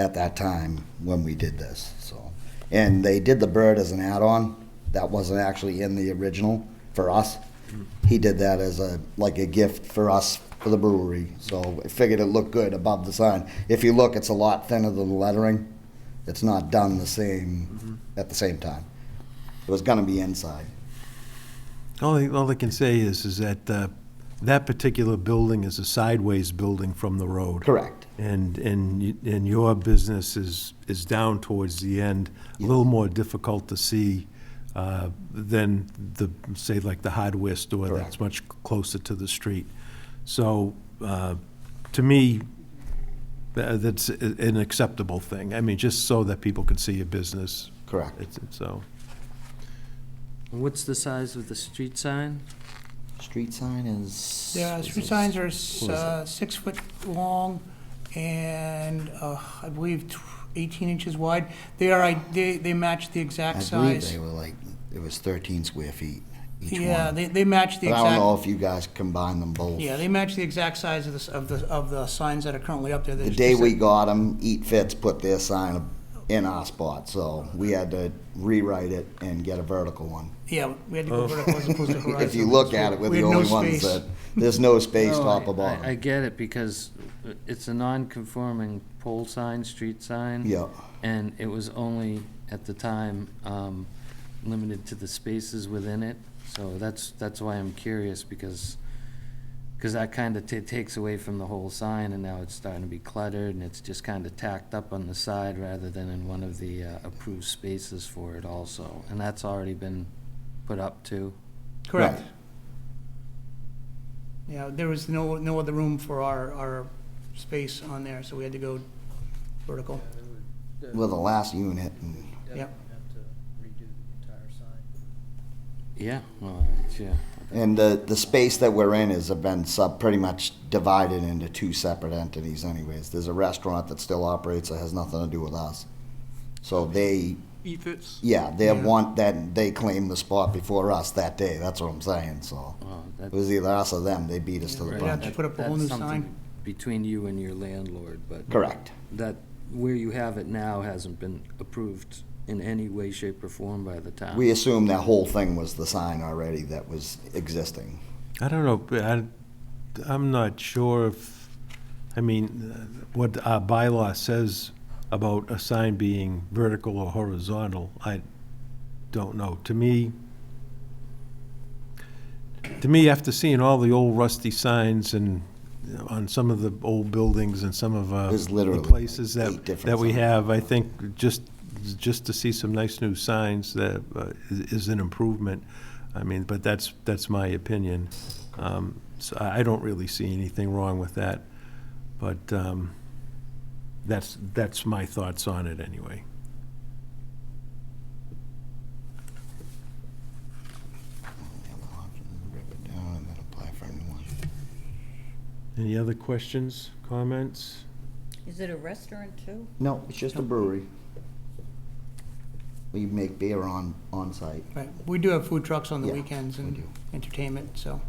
at that time when we did this, so. And they did the bird as an add-on, that wasn't actually in the original for us. He did that as a, like a gift for us, for the brewery, so I figured it looked good above the sign. If you look, it's a lot thinner than the lettering, it's not done the Mm-hmm. same, at the same time. It was gonna be inside. All, I- all I can say is, is that uh, that particular building is a sideways building from the road. Correct. And, and, y- and your business is, is down towards the end, a little more difficult to see uh, than the, say, like the hardware store that's Correct. much closer to the street. So, uh, to me, tha- that's a- an acceptable thing. I mean, just so that people can see your business. Correct. It's- it's So, What's the size of the street sign? Street sign is. The street signs are s- uh, six foot long and uh, I believe tw- 18 inches wide. They are, i- they, they match the exact I believe size. they were like, it was thirteen square feet each one. Yeah, they, they match the But I don't know exact, if you guys combine them both. yeah, they match the exact size of the, s- of the, of the signs that are currently up there. The day we got them, Eat Fits put their sign in our spot, so we had to rewrite it and get a vertical one. Yeah, we had to go vertical as opposed to horizontal. If you look at it, we're We the had no only ones space. that, there's no space No, top I- or I- I bottom. get it, because it's a non-conforming pole sign, street sign. Yeah, And it was only, at the time, um, limited to the spaces within it. So that's, that's why I'm curious, because, because that kind of takes away from the whole sign, and now it's starting to be cluttered, and it's just kind of tacked up on the side rather than in one of the uh, approved spaces for it also. And that's already been put up too. Correct. Right. Yeah, there was no, no other room for our, our space on there, so we had to go vertical. we're the last unit, and Yep. Have to redo the entire sign. Yeah, well, yeah. And the, the space that we're in has been sub, pretty much divided into two separate entities anyways. There's a restaurant that still operates that has nothing to do with us. So they, Eat fits. yeah, they Yeah. want that, they claimed the spot before us that day, that's what I'm saying, so. Well, It that- was either us or them, they beat us to the Right. punch. to put up a whole That's new something sign. Between you and your landlord, but. Correct, That, where you have it now hasn't been approved in any way, shape, or form by the town. we assumed that whole thing was the sign already that was existing. I don't know, but I, I'm not sure if, I mean, uh, what our bylaw says about a sign being vertical or horizontal, I don't know. To me, to me, after seeing all the old rusty signs and, you know, on some of the old buildings and some of, uh, There's the literally places like eight that, different that we signs. have, I think, just, just to see some nice new signs that, uh, is is an improvement. I mean, but that's, that's my opinion. Um, So I I don't really see anything wrong with that, but um, that's, that's my thoughts on it anyway. Any other questions, comments? Is it a restaurant too? No, it's just a brewery. We make beer on, on site. Right, we do have food trucks on the Yeah, weekends we and do. entertainment, so.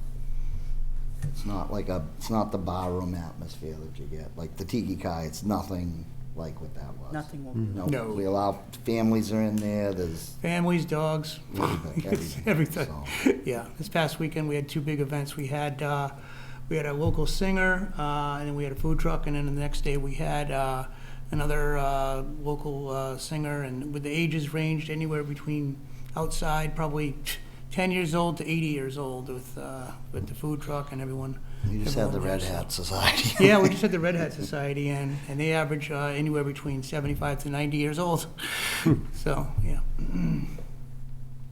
It's not like a, it's not the barroom atmosphere that you get, like the Tiki Kai, it's nothing like what that was. Nothing will No, No. we allow, families are in there, there's Families, dogs, everything. everything. so. Yeah, this past weekend, we had two big events. We had, uh, we had a local singer, uh, and then we had a food truck, and then the next day, we had, uh, another, uh, local, uh, singer, and with the ages ranged anywhere between outside, probably ten years old to eighty years old with, uh, with the food truck and everyone. We just had the everyone Red there, so- Hat Society. Yeah, we just had the Red Hat Society, and, and they average uh, anywhere between 75 to 90 years old. Hmm. so, yeah.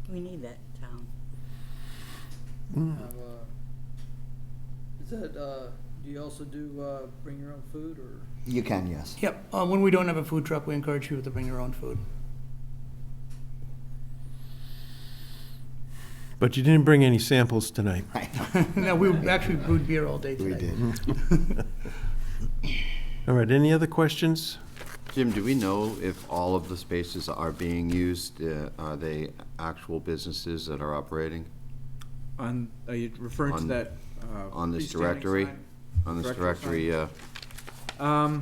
We need that in town. Have, uh, is that, uh, do you also do, uh, bring your own food or? You can, yes. Yep. Uh, when we don't have a food truck, we encourage people to bring their own food. But you didn't bring any samples tonight. no, we actually brewed beer all day We today. did. All right, any other questions? Jim, do we know if all of the spaces are being used? Uh, Are they actual businesses that are operating On, are you referring to On- that? uh, on this freestanding directory? sign? on this Directory directory? uh, Um,